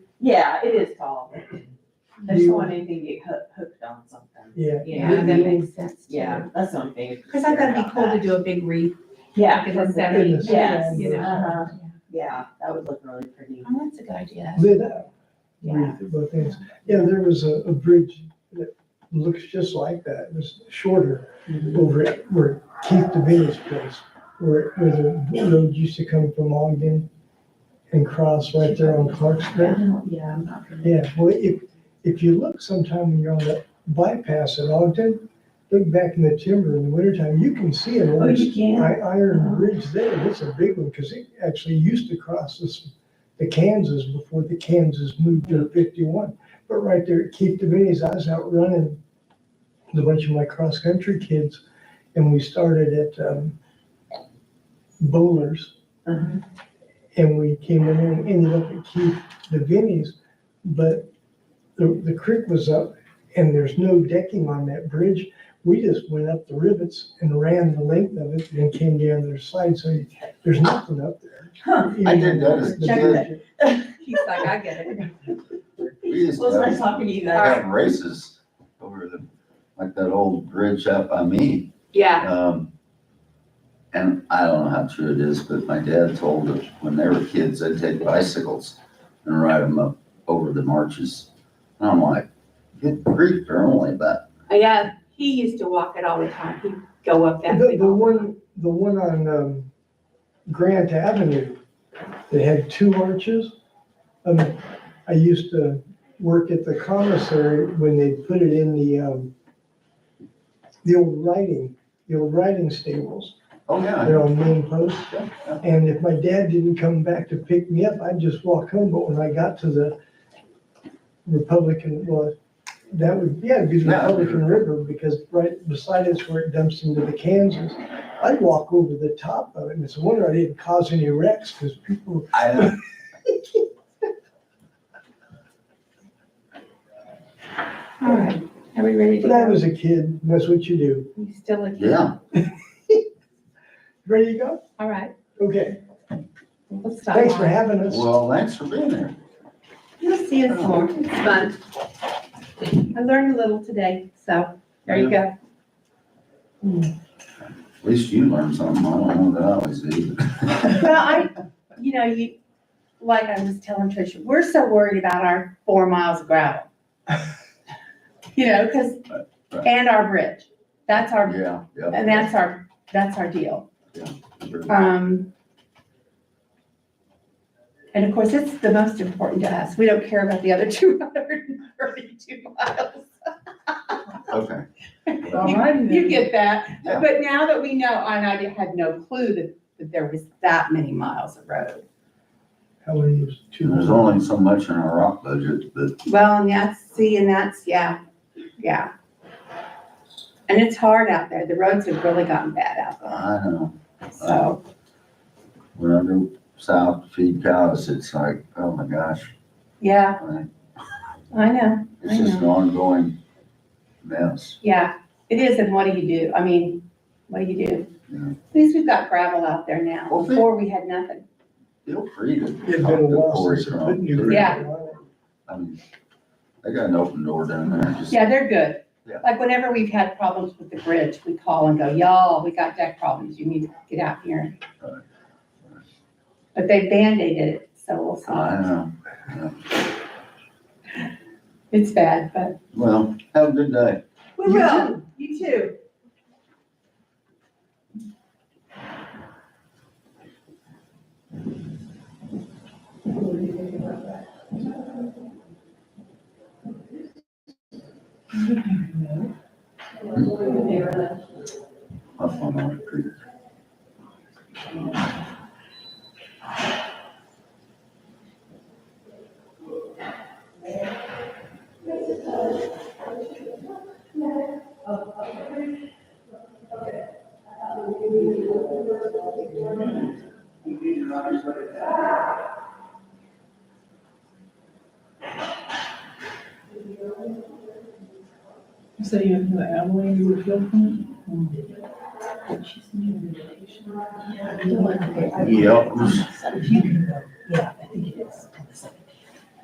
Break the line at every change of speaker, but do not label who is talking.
Yeah, it is tall. I just don't want anything to get hooked, hooked on something.
Yeah.
You
Yeah,
know,
that makes sense. too.
yeah, that's what I'm thinking.
Cause I thought it'd be cool to do a big wreath.
Yeah.
Because it's
that's the thing,
seventy,
Yes,
you know.
uh-huh, yeah, that would look really pretty.
Oh, that's a good idea.
Lit up,
Yeah.
both ends. Yeah, there was a, a bridge that looks just like that, it was shorter
Mm-hmm.
over at where Keith DeVito's place, where, where the road used to come from Ogden and cross right there on Clark Street.
Yeah, I'm not familiar.
Yeah, well, if, if you look sometime when you're on the bypass at Ogden, look back in the timber in the wintertime, you can see an
Oh,
old
you can?
I, Iron Bridge there, and it's a big one, because it actually used to cross this, the Kansas before the Kansas moved to fifty-one. But right there at Keith Devaney's, I was out running with a bunch of my cross-country kids, and we started at, um, Bowlers,
Uh-huh.
and we came in there and ended up at Keith Devaney's, but the, the creek was up, and there's no decking on that bridge. We just went up the rivets and ran the length of it and came down their side, so you- there's nothing up there.
Huh.
I did that as a
The
kid.
bridge-
He's like, I get it.
We used to
Well, it's nice
have,
talking to you
I
guys.
had races over the, like that old bridge up by me.
Yeah.
Um, and I don't know how true it is, but my dad told us when they were kids, they'd take bicycles and ride them up over the marches. And I'm like, good grief, they're only about,
Yeah, he used to walk it all the time. He'd go up that.
The,
big
the
old-
one, the one on, um, Grant Avenue, they had two arches. Um, I used to work at the commissary when they put it in the, um, the old writing, the old writing stables,
oh yeah.
they're on main posts.
yeah, yeah.
And if my dad didn't come back to pick me up, I'd just walk home, but when I got to the Republican, well, that would, yeah, it'd be the
Yeah.
Republican River, because right beside us where it dumps into the Kansas, I'd walk over the top of it, and it's a wonder I didn't cause any wrecks, because people,
I know.
All right, are we ready to
but I
go?
was a kid, and that's what you do.
You still looking?
Yeah,
Ready to go?
All right,
Okay,
let's stop.
thanks for having us.
well, thanks for being there.
You'll see us more. It's fun. I learned a little today, so there you go.
At least you learned something. I don't know that I always do.
Well, I, you know, you, like I was telling Tricia, we're so worried about our four miles of gravel. You know, because,
right.
and our bridge. That's our,
Yeah, yeah.
and that's our, that's our deal.
Sure.
Um, and of course, it's the most important to us. We don't care about the other two hundred and thirty-two miles.
Okay.
You- You get that,
Yeah.
but now that we know, and I had no clue that, that there was that many miles of road.
How are you?
And There's only so much in our rock budget, but
Well, and that's, see, and that's, yeah, yeah. And it's hard out there. The roads have really gotten bad out
I don't know.
there, so.
when I go south to feed cows, it's like, oh my gosh,
Yeah,
like,
I know,
it's just an ongoing mess.
yeah. It is, and what do you do? I mean, what do you do?
Yeah.
At least we've got gravel out there now.
Well, thank-
Before, we had nothing.
Feel free to
It's been
talk
a
to
while
Cory
since I
Trump,
put new.
too.
Yeah.
I mean, they got an open door down there, just,
Yeah, they're good.
Yeah.
Like whenever we've had problems with the bridge, we call and go, y'all, we got deck problems. You need to get out here.
Right.
But they Band-Aided it, so we'll
I
see.
don't know.
It's bad, but.
Well, have a good day.
We
You
will. You too.
Up on our creek.
So you have the Abilene, you would feel from?
Yep,